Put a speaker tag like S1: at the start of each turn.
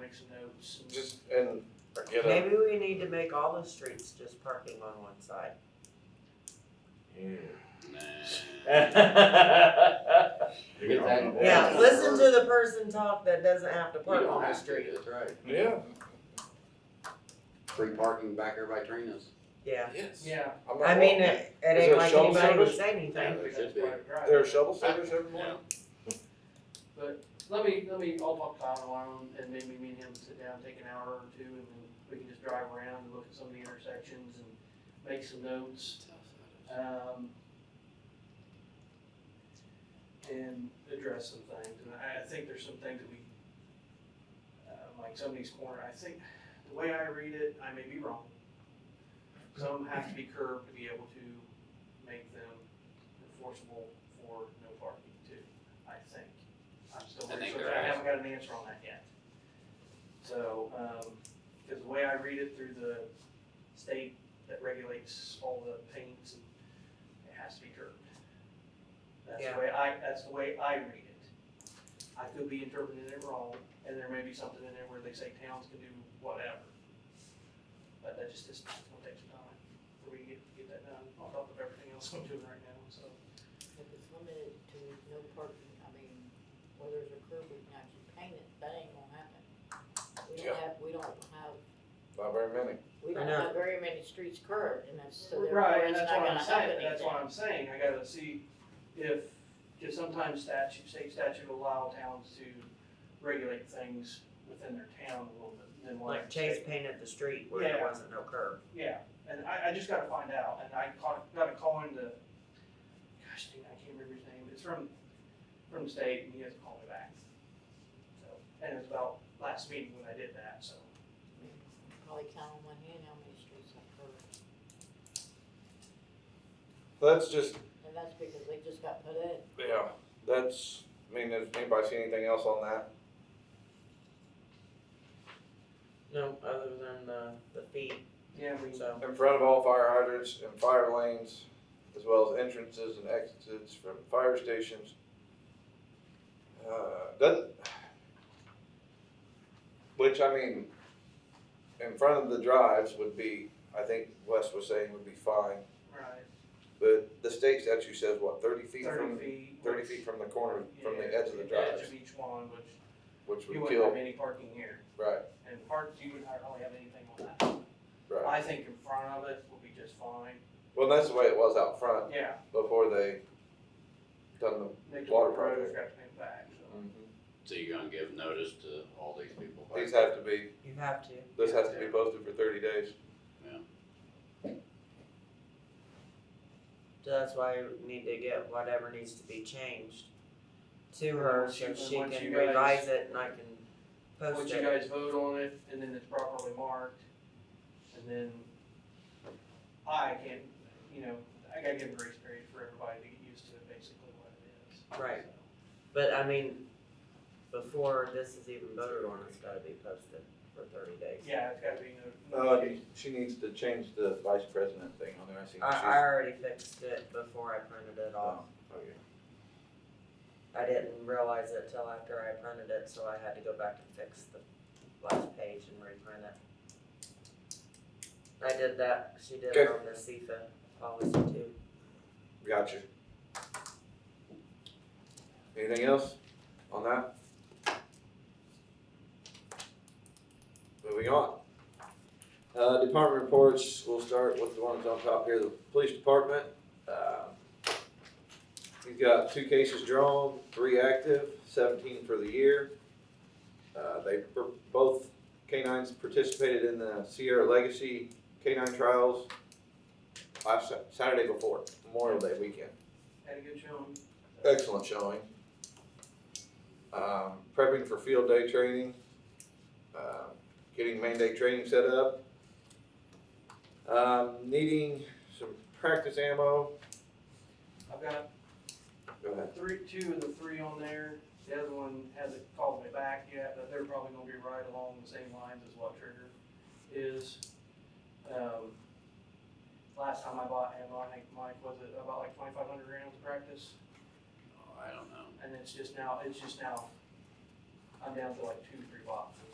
S1: make some notes. and-
S2: Just, and or get a,
S3: Maybe we need to make all the streets just parking on one side.
S2: Mm.
S4: Get that-
S3: Yeah,
S2: Yeah.
S3: listen to the person talk that doesn't have to
S4: You
S3: park
S4: don't
S3: on the
S4: have to,
S3: street.
S4: that's right.
S2: yeah,
S4: Free parking back there by Trina's.
S3: Yeah,
S2: yes.
S1: Yeah,
S2: I'm not
S3: I mean,
S2: wrong.
S3: it,
S2: Is
S3: it ain't
S2: there
S3: like
S2: shuttle
S3: anybody would
S2: service?
S3: say
S1: I think
S3: anything.
S4: there
S1: that's
S4: should be.
S1: probably right.
S2: There are shovel service every morning?
S1: Let me, let me, I'll talk to Kyle tomorrow and maybe me and him sit down, take an hour or two and then we can just drive around and look at some of the intersections and make some notes. Um, and address some things. And I, I think there's some things that we, uh, like some of these corner, I think, the way I read it, I may be wrong. Some have to be curbed to be able to make them enforceable for no parking too, I think. I'm still
S5: I think
S1: researching,
S5: they're
S1: I haven't got an answer on that yet. So, um, cause the way I read it through the state that regulates all the paints and it has to be curbed. That's the
S3: Yeah.
S1: way I, that's the way I read it. I could be interpreting it wrong, and there may be something in there where they say towns can do whatever. But that just is, it'll take some time for me to get, get that done, on top of everything else I'm doing right now, so.
S6: If it's limited to no parking, I mean, whether it's a curb or not, you paint it, that ain't gonna happen. We
S2: Yeah.
S6: don't have, we don't have,
S2: Not very many.
S6: we
S3: I
S6: don't
S3: know.
S6: have very many streets curved, and that's, so
S1: Right,
S6: therefore
S1: and
S6: it's not
S1: that's what
S6: gonna
S1: I'm
S6: help
S1: saying, that's
S6: anything.
S1: what I'm saying, I gotta see if, cause sometimes statute, state statute allow towns to regulate things within their town a little bit, than what.
S3: Like Chase painted the street where there
S1: Yeah.
S3: wasn't no curb.
S1: Yeah, and I, I just gotta find out, and I caught, got a call into, gosh dang, I can't remember his name, it's from, from the state, and he hasn't called me back. So, and it was about last meeting when I did that, so,
S6: Probably count on one hand how many streets are curved,
S2: That's just,
S6: and that's because they just got put in.
S2: yeah, that's, I mean, does anybody see anything else on that?
S3: No, other than the, the feet,
S1: yeah, we,
S3: so.
S2: In front of all fire hydrants and fire lanes, as well as entrances and exits from fire stations. Uh, doesn't, which I mean, in front of the drives would be, I think Wes was saying would be fine,
S1: right,
S2: but the state statute says what, thirty feet
S1: thirty
S2: from,
S1: feet.
S2: thirty
S1: which-
S2: feet from the corner, from the
S1: yeah,
S2: edge of the
S1: Edge
S2: drives,
S1: of each one, which
S2: which
S1: you
S2: would
S1: wouldn't have
S2: kill,
S1: any parking here,
S2: right,
S1: and parks, you would hardly have anything on that.
S2: right.
S1: I think in front of it will be just fine,
S2: Well, that's the way it was out front
S1: yeah.
S2: before they done the
S1: they took
S2: Water
S1: the road,
S2: project.
S1: Got to pay back, so.
S5: So you're gonna give notice to all these people?
S2: These have to be,
S3: You have to.
S2: this has to be posted for thirty days.
S3: So that's why we need to get whatever needs to be changed to her so
S1: Once you-
S3: she
S1: once
S3: can
S1: you guys-
S3: revise it and I can post
S1: Once you
S3: it.
S1: guys vote on it, and then it's properly marked, and then I can, you know, I gotta give a grace period for everybody to get used to basically what it is.
S3: Right. But I mean, before this is even voted on, it's gotta be posted for thirty days.
S1: So, Yeah, it's gotta be no.
S2: Uh, she needs to change the vice president thing on there, I see.
S3: I, I already fixed it before I printed it off. I didn't realize it till after I printed it, so I had to go back and fix the last page and reprint it. I did that, she did
S2: Okay.
S3: it on the CFA policy too.
S2: Gotcha. Anything else on that? Moving on. Uh, department reports, we'll start with the ones on top here, the police department. Uh, He's got two cases drawn, three active, seventeen for the year. Uh, they, per- both canines participated in the Sierra Legacy canine trials last Sa- Saturday before Memorial Day weekend.
S1: Had a good showing.
S2: Excellent showing. Um, prepping for field day training, um, getting main day training set up, um, needing some practice ammo.
S1: I've got
S2: Go ahead.
S1: three, two of the three on there, the other one hasn't called me back yet, but they're probably gonna be right along the same lines as what Trigger is. Um, last time I bought ammo, I think Mike, was it about like twenty-five hundred rounds of practice?
S5: Oh, I don't know.
S1: and it's just now, it's just now, I'm down to like two, three boxes.